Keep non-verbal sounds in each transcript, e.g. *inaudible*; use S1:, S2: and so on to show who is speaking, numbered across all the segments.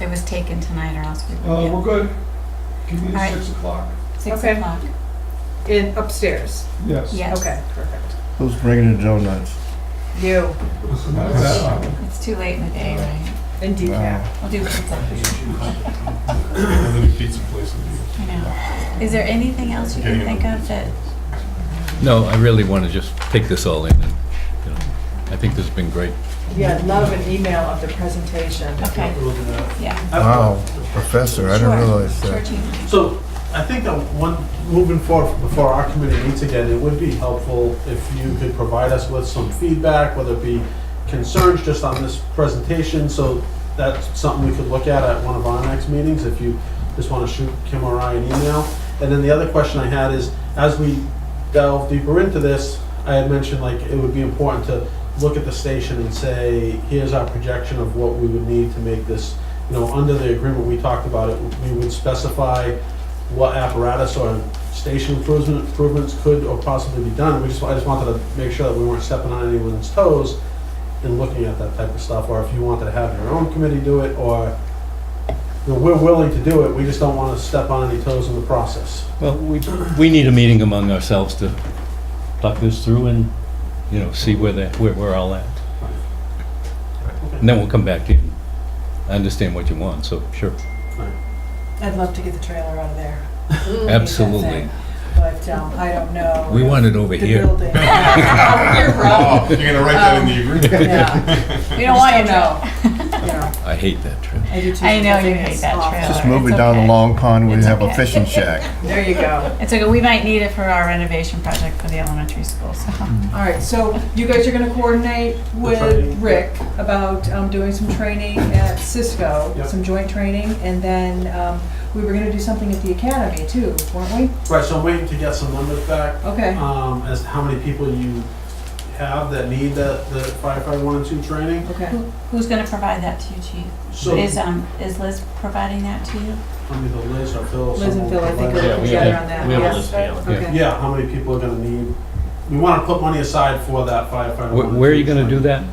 S1: It was taken tonight or else we
S2: Uh,
S1: would
S2: we're good. Give me
S1: Alright.
S2: six o'clock.
S1: get six
S3: Oh, Okay.
S1: o'clock.
S3: In upstairs.
S2: Yes.
S1: Yes.
S3: Okay, perfect.
S4: Who's bringing the donuts?
S3: You
S2: That's that.
S1: It's too late in the day, right?
S3: and decaf.
S1: We'll do pizza.
S5: And then a pizza place in New York.
S1: I know. Is there anything else you can think of that?
S6: No, I really want to just take this all in, and, you know, I think this has been great.
S3: Yeah, love an email of the presentation.
S1: Okay. Yeah.
S4: Wow, professor, I didn't
S1: Sure.
S4: realize
S1: Sure,
S4: that.
S1: Chief.
S5: So I think that one, moving forward, before our committee meets again, it would be helpful if you could provide us with some feedback, whether it be concerns just on this presentation, so that's something we could look at at one of our next meetings, if you just want to shoot Kim or I an email. And then the other question I had is, as we delve deeper into this, I had mentioned like it would be important to look at the station and say, here's our projection of what we would need to make this, you know, under the agreement we talked about it, we would specify what apparatus or station improvement, improvements could or possibly be done. We just, I just wanted to make sure that we weren't stepping on anyone's toes in looking at that type of stuff, or if you wanted to have your own committee do it, or, you know, we're willing to do it, we just don't want to step on any toes in the process.
S6: Well, we, we need a meeting among ourselves to talk this through and, you know, see where the, where we're all at. And then we'll come back in. I understand what you want, so, sure,
S3: I'd love to get the trailer out of there.
S1: Mm.
S6: absolutely.
S3: But um, I don't know.
S6: We want it over
S3: The
S6: here. *laughs*
S3: building. Over here, bro.
S5: you're gonna write that in the agreement?
S3: Yeah,
S1: We don't want you
S3: Just
S1: to. *laughs*
S3: yeah.
S6: I hate that trip.
S3: I do too.
S1: I know
S3: The
S1: you
S3: thing
S1: hate
S3: is
S1: that
S3: awful.
S1: trailer.
S4: Just
S1: It's
S4: move it down
S1: okay.
S4: the long pond where you
S1: It's
S4: have a
S1: okay.
S3: *laughs*
S4: fishing shack.
S3: There you go.
S1: It's okay, we might need it for our renovation project for the elementary school, so.
S3: All right, so you guys are gonna coordinate with
S5: training.
S3: Rick about um, doing some training at Cisco,
S5: Yep.
S3: some joint training, and then um, we were gonna do something at the academy too, weren't we?
S5: Right, so I'm waiting to get some numbers back,
S3: Okay,
S5: um, as to how many people you have that need that, the firefighter one and two training.
S3: okay.
S1: Who- Who's gonna provide that to you, chief?
S5: So,
S1: Is, um, is Liz providing that to you?
S5: I mean, the Liz or Phil.
S3: Liz and
S5: someone
S3: Phil, I think,
S5: provided-
S3: are
S6: Yeah, we
S3: together
S6: have-
S3: on that.
S6: we have a
S3: yes.
S6: list
S3: Okay.
S5: Yeah, how many people are gonna need, we wanna put money aside for that firefighter.
S6: Where,
S5: one and
S6: where are
S5: two
S6: you gonna do
S5: training.
S6: that?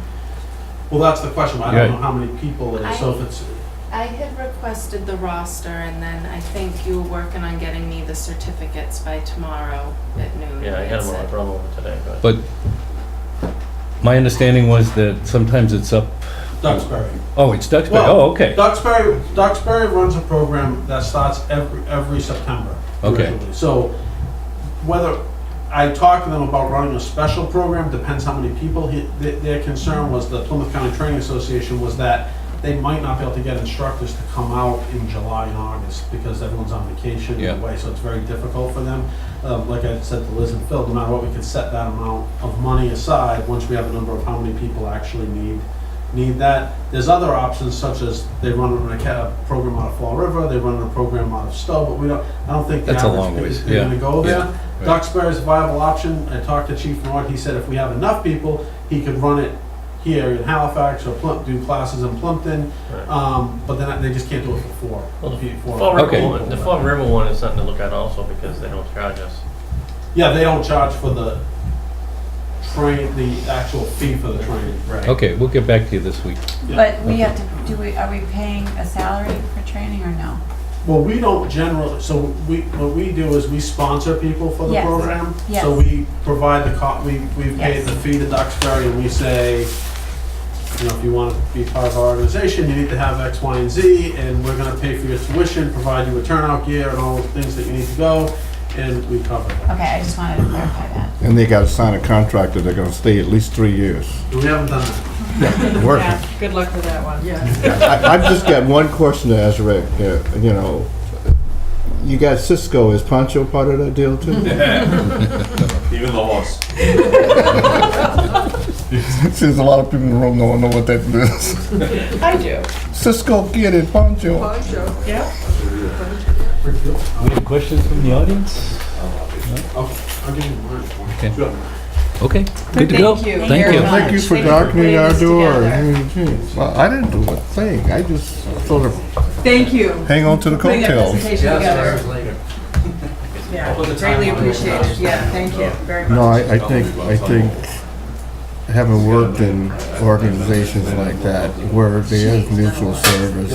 S5: Well, that's the question, I
S6: Yeah.
S5: don't know how many people it is, so if it's,
S7: I had requested the roster and then I think you were working on getting me the certificates by tomorrow at noon.
S8: Yeah, I had
S7: That's
S8: him on
S7: it.
S8: the drum over today, but.
S6: But my understanding was that sometimes it's up,
S5: Duxbury.
S6: oh, it's Duxbury,
S5: Well,
S6: oh, okay.
S5: Duxbury, Duxbury runs a program that starts every, every September.
S6: Okay.
S5: usually. So whether, I talked to them about running a special program, depends how many people. He- th- Their concern was, the Plymouth County Training Association, was that they might not be able to get instructors to come out in July and August because everyone's on vacation
S6: Yeah.
S5: anyway, so it's very difficult for them. Um, Like I said to Liz and Phil, no matter what, we could set that amount of money aside once we have a number of how many people actually need need that. There's other options such as they run an acad- a program out of Fall River, they run a program out of Stowe, but we don't, I don't think the
S6: That's a long
S5: average
S6: ways,
S5: is gonna
S6: yeah,
S5: go
S6: yeah,
S5: there.
S6: right.
S5: Duxbury is a viable option. I talked to Chief Nord, he said if we have enough people, he could run it here in Halifax or Plum, do classes in Plumpton.
S8: Right.
S5: Um, but then they just can't do it for four.
S8: Well, the
S5: pe- four
S8: Fall River
S6: Okay.
S8: one, the Fall River one is something to look at also because they don't charge us.
S5: Yeah, they don't charge for the train, the actual fee for the training. Right.
S6: Okay, we'll get back to you this week.
S5: Yeah.
S1: But we have to, do we, are we paying a salary for training or no?
S5: Well, we don't generally, so we, what we do is we sponsor people for the
S1: Yes.
S5: program.
S1: Yes.
S5: So we provide the, co- we, we pay
S1: Yes.
S5: the fee to Duxbury and we say, you know, if you want to be part of our organization, you need to have X, Y, and Z, and we're gonna pay for your tuition, provide you with turnout gear and all the things that you need to go, and we cover that.
S1: Okay, I just wanted to clarify that.
S4: And they gotta sign a contract that they're gonna stay at least three years.
S5: And we haven't done that.
S4: Working.
S3: Yeah, good luck with that one. Yeah.
S4: I- I've just got one question to ask Rick, uh, you know, you got Cisco, is Pancho part of that deal too?
S3: *laughs*
S4: *laughs*
S5: Even the horse.
S4: Since a lot of people in the room don't know what that
S3: *laughs*
S4: is.
S3: I do.
S4: Cisco Kid and Pancho.
S3: Yeah.
S6: We have questions from the audience?
S5: I'll give you mine.
S6: Okay.
S5: Sure.
S6: Okay, good to go.
S3: Thank you
S6: Thank
S3: very
S6: you.
S3: much.
S4: Thank you for
S3: Thank you for
S4: darkening
S3: putting
S4: our
S3: this
S4: door.
S3: together.
S4: I mean, geez, Well, I didn't do a thing, I just sort of
S3: Thank you.
S4: hang on to the
S3: Putting that
S4: coattails.
S3: presentation together. Yeah, greatly appreciated. Yeah, thank you very much.
S4: No, I, I think, I think having worked in organizations like that, where there is mutual service,